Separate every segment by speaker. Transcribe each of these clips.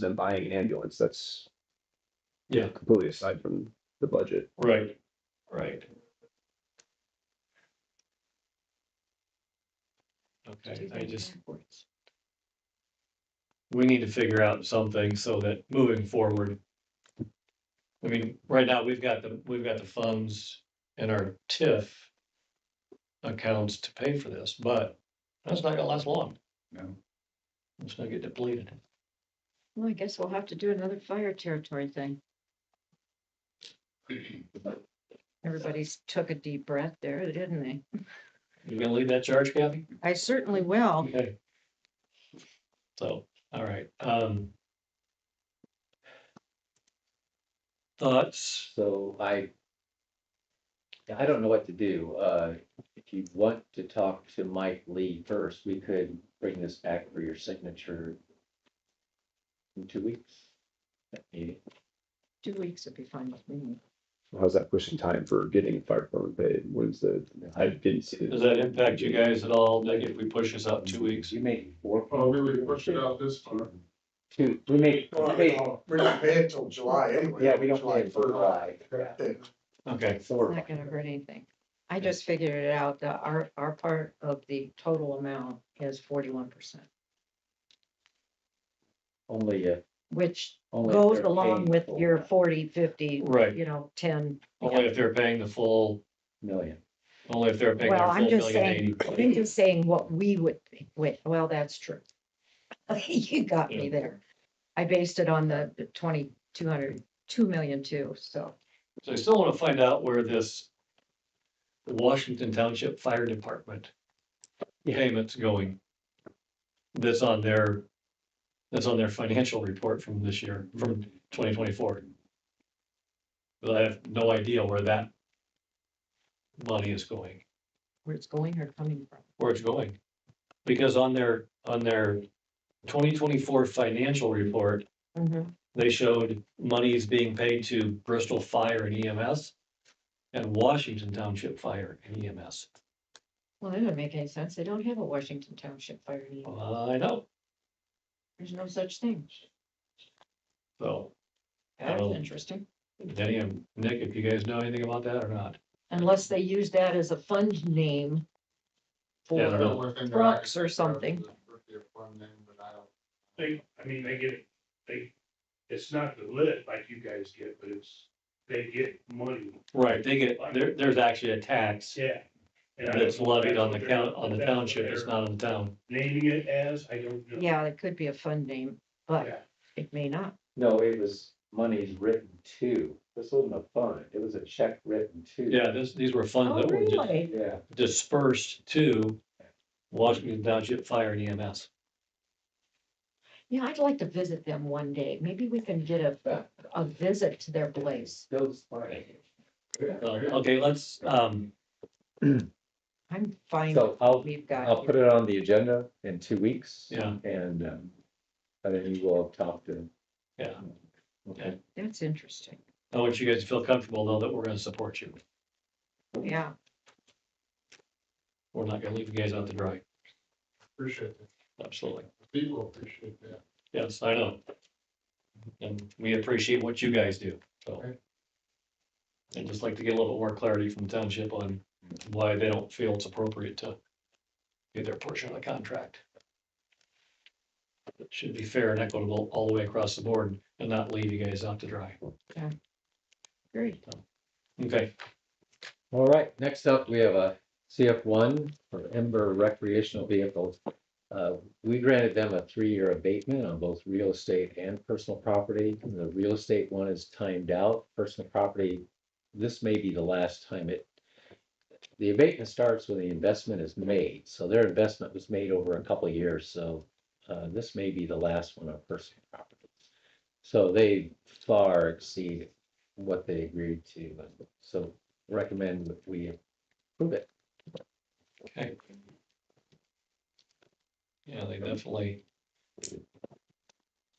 Speaker 1: than buying an ambulance, that's.
Speaker 2: Yeah.
Speaker 1: Completely aside from the budget.
Speaker 2: Right, right. Okay, I just, we need to figure out something so that moving forward. I mean, right now, we've got the, we've got the funds in our TIF accounts to pay for this, but that's not gonna last long.
Speaker 3: No.
Speaker 2: It's gonna get depleted.
Speaker 4: Well, I guess we'll have to do another fire territory thing. Everybody's took a deep breath there, didn't they?
Speaker 2: You gonna leave that charge, Kathy?
Speaker 4: I certainly will.
Speaker 2: Okay. So, all right, um. Thoughts?
Speaker 3: So I. I don't know what to do. Uh, if you want to talk to Mike Lee first, we could bring this back for your signature. In two weeks. That meeting.
Speaker 4: Two weeks would be fine with me.
Speaker 1: How's that pushing time for getting fire department paid? When's the, I didn't see.
Speaker 2: Does
Speaker 1: it.
Speaker 2: that impact you guys at all, Nick, if we push this out two weeks?
Speaker 3: You made four.
Speaker 5: Well, Oh, we would push it out this far.
Speaker 3: Two, we made, we made,
Speaker 5: We're not paying till July anyway.
Speaker 3: yeah, we don't pay it for July. Yeah.
Speaker 2: Okay,
Speaker 4: It's not gonna hurt anything. I just figured it out. The, our, our part of the total amount is forty-one percent,
Speaker 3: Only, uh,
Speaker 4: which
Speaker 3: only. if
Speaker 4: goes
Speaker 3: they're
Speaker 4: along
Speaker 3: paying
Speaker 4: with
Speaker 3: full
Speaker 4: your forty, fifty,
Speaker 2: right,
Speaker 4: you know, ten.
Speaker 2: only if they're paying the full,
Speaker 3: Million.
Speaker 2: only if they're paying their
Speaker 4: Well,
Speaker 2: full
Speaker 4: I'm just
Speaker 2: million
Speaker 4: saying,
Speaker 2: eighty.
Speaker 4: I'm just saying what we would, think. wait, well, that's true. You got me
Speaker 2: Yeah.
Speaker 4: there. I based it on the the twenty, two hundred, two million two, so.
Speaker 2: So I still wanna find out where this Washington Township Fire Department payment's going. That's on their, that's on their financial report from this year, from twenty twenty-four. But I have no idea where that money is going.
Speaker 4: Where it's going or coming from.
Speaker 2: where it's going. Because on their, on their twenty twenty-four financial report, they showed monies being paid to Bristol Fire and EMS and Washington Township Fire and E EMS.
Speaker 4: Well, that doesn't make any sense. They don't have a Washington Township fire need.
Speaker 2: I know,
Speaker 4: There's no such thing.
Speaker 2: so
Speaker 4: That's
Speaker 2: Oh.
Speaker 4: interesting.
Speaker 2: Denny and Nick, if you guys know anything about that or not.
Speaker 4: Unless they use that as a fund name.
Speaker 2: Yeah, I don't
Speaker 4: For,
Speaker 2: know.
Speaker 4: Trucks or something.
Speaker 6: They, I mean, they get, they, it's not the lit like you guys get, but it's, they get money.
Speaker 2: Right, they get, there, there's actually a tax
Speaker 6: Yeah. And I don't
Speaker 2: that's
Speaker 6: know if
Speaker 2: levied
Speaker 6: that's
Speaker 2: on the
Speaker 6: what
Speaker 2: count,
Speaker 6: they're-
Speaker 2: on the
Speaker 6: that's what
Speaker 2: township, it's
Speaker 6: they're
Speaker 2: not on the town.
Speaker 6: Naming it as, I don't know.
Speaker 4: yeah, it could be a fund name, but
Speaker 6: Yeah.
Speaker 4: it may not.
Speaker 3: No, it was monies written to. This wasn't a fund. It was a check written to.
Speaker 2: Yeah, this, these were funds
Speaker 4: Oh,
Speaker 2: that were just
Speaker 4: really?
Speaker 3: Yeah.
Speaker 2: dispersed to Washington Township Fire and E EMS.
Speaker 4: Yeah, I'd like to visit them one day. Maybe we can get a, a- a visit to their place.
Speaker 3: Those funny.
Speaker 2: So, Okay, let's, um,
Speaker 4: I'm fine with
Speaker 3: So I'll,
Speaker 4: what we've
Speaker 3: I'll
Speaker 4: got.
Speaker 3: put
Speaker 4: here.
Speaker 3: it on the agenda in two weeks.
Speaker 2: Yeah.
Speaker 3: And, um, and then you will talk to them.
Speaker 2: yeah,
Speaker 3: Okay.
Speaker 4: That's interesting.
Speaker 2: I want you guys to feel comfortable though that we're gonna support you.
Speaker 4: Yeah,
Speaker 2: We're not gonna leave you guys out to dry.
Speaker 5: Appreciate that.
Speaker 2: Absolutely.
Speaker 5: People appreciate that.
Speaker 2: Yes, I know. And we appreciate what you guys do, so.
Speaker 5: Okay.
Speaker 2: I'd just like to get a little bit more clarity from the township on why they don't feel it's appropriate to get their portion of the contract. It should be fair and equitable all the way across the board and not leave you guys out to dry.
Speaker 4: great.
Speaker 2: Okay.
Speaker 3: All right, next up, we have a CF one for Ember recreational vehicles. Uh, we granted them a three-year abatement on both real estate and personal property. The real estate one is timed out, personal property, this may be the last time it. The abatement starts when the investment is made, so their investment was made over a couple of years, so, uh, this may be the last one on personal property. So they far exceed what they agreed to, so recommend that we approve it.
Speaker 2: Okay. Yeah, they definitely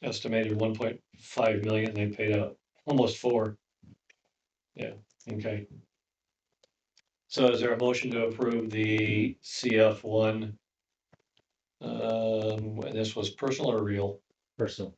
Speaker 2: estimated one point five million, they paid out almost four. Yeah, okay. So is there a motion to approve the CF one? Um, and this was personal or real?
Speaker 3: Personal,